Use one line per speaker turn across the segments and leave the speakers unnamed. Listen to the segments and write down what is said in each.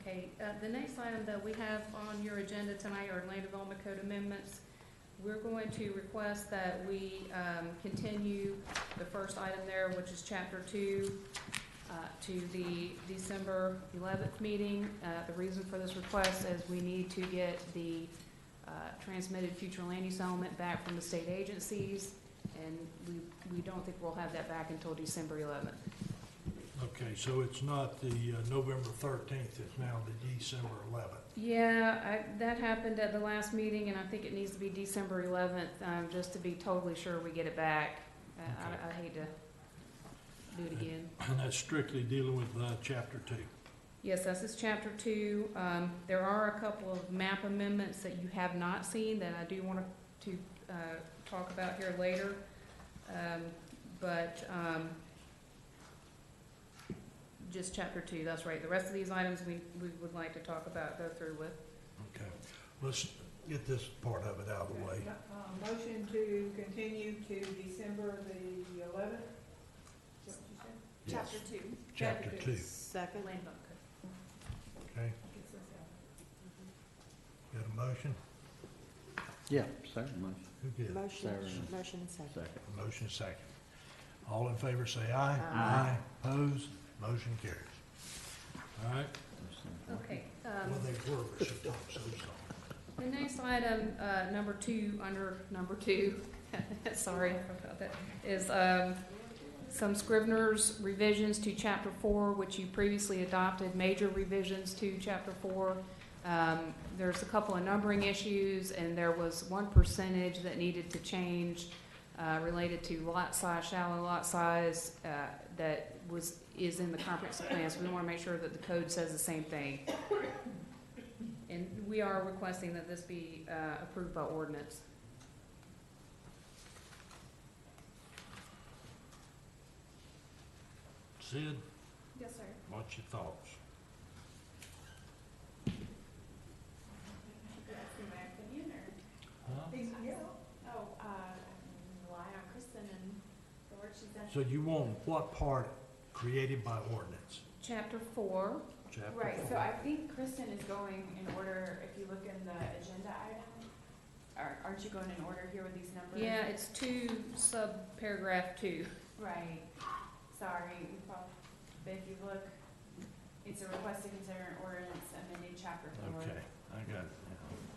Okay, uh, the next item that we have on your agenda tonight are land development code amendments. We're going to request that we um, continue the first item there, which is chapter two, uh, to the December eleventh meeting. Uh, The reason for this request is we need to get the uh, transmitted future land use element back from the state agencies, and we, we don't think we'll have that back until December eleventh.
Okay, so it's not the uh, November thirteenth, it's now the December eleventh.
Yeah, I, that happened at the last meeting, and I think it needs to be December eleventh, um, just to be totally sure we get it back. Uh, I-
Okay.
I, I hate to do it again.
And that's strictly dealing with, uh, chapter two.
Yes, this is chapter two. Um, there are a couple of map amendments that you have not seen that I do want to, uh, talk about here later. Um, but, um, just chapter two, that's right. The rest of these items we, we would like to talk about, go through with.
Okay, let's get this part of it out of the way.
Uh, Motion to continue to December the eleventh?
Yes,
two.
Chapter two,
Second.
Land Bank Code.
okay. Mm-hmm. Got a motion?
Yeah, Sarah, motion,
Who did?
Sarah,
motion second.
second.
A Motion second. All in favor, say aye.
Aye.
Opposed, motion carries. All right,
Okay,
well,
um,
they were, but she don't, so it's all right.
the next item, uh, number two, under number two, sorry about that, is, um, some Scrivener's revisions to chapter four, which you previously adopted, major revisions to chapter four. Um, there's a couple of numbering issues, and there was one percentage that needed to change, uh, related to lot size, shallow lot size, uh, that was, is in the comprehensive plan, so we wanna make sure that the code says the same thing. And we are requesting that this be uh, approved by ordinance.
Sid,
Yes, sir.
what's your thoughts?
my opinion, or?
Huh?
Yeah. Oh, uh, I rely on Kristen and the work she's done.
So you want what part created by ordinance?
Chapter four,
Chapter four.
Right, so I think Kristen is going in order, if you look in the agenda item, are- aren't you going in order here with these numbers?
yeah, it's two, sub paragraph two.
Right, sorry, we prob- but if you look, it's a request to consider an ordinance amending chapter four.
Okay, I got it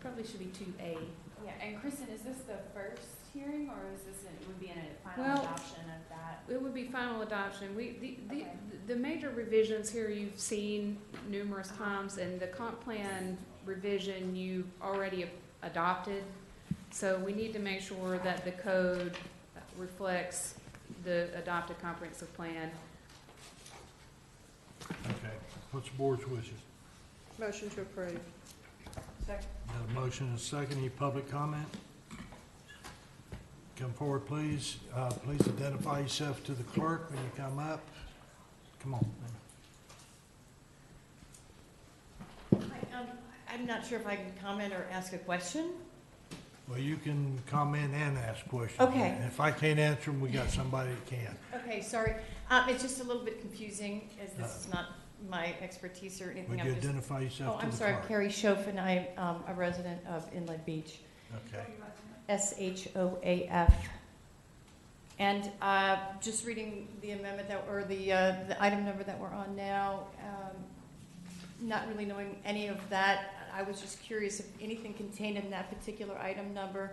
Probably should be two A.
Yeah, and Kristen, is this the first hearing, or is this, it would be in a
Well-
final adoption of that?
It would be final adoption. We, the, the,
Okay.
the major revisions here you've seen numerous times, and the comp plan revision you already a- adopted. So we need to make sure that the code reflects the adopted comprehensive plan.
now. Okay, what's the board's wishes?
Motion to approve. Second.
Got a motion and a second, any public comment? Come forward, please. Uh, please identify yourself to the clerk when you come up. Come on.
um, I'm not sure if I can comment or ask a question.
Well, you can comment and ask questions.
Okay.
And If I can't answer them, we got somebody that can.
Okay, sorry, um, it's just a little bit confusing, as this is not my expertise or anything.
Would
I'm
you
just-
identify
Oh,
yourself to
I'm
the
sorry,
clerk?
Carrie Schoffen, I'm um, a resident of Inlet Beach,
Okay,
S-H-O-A-F. And uh, just reading the amendment that, or the, uh, the item number that we're on now, um, not really knowing any of that, I was just curious if anything contained in that particular item number,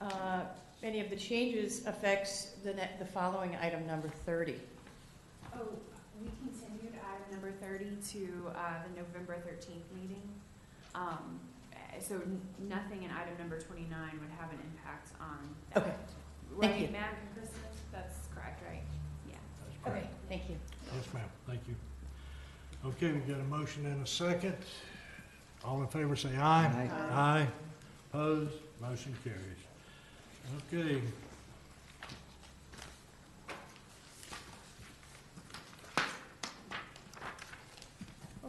uh, any of the changes affects the, ne- the following item number 30.
Oh, we continued item number thirty to, uh, the November thirteenth meeting. Um, eh, so n- nothing in item number twenty-nine would have an impact on that.
Okay, thank you.
Right, Madam Kristen, that's correct, right? Yeah.
that's correct.
Okay, thank you.
Yes, ma'am, thank you. Okay, we got a motion and a second. All in favor, say aye.
Aye.
Aye. Opposed, motion carries. Okay,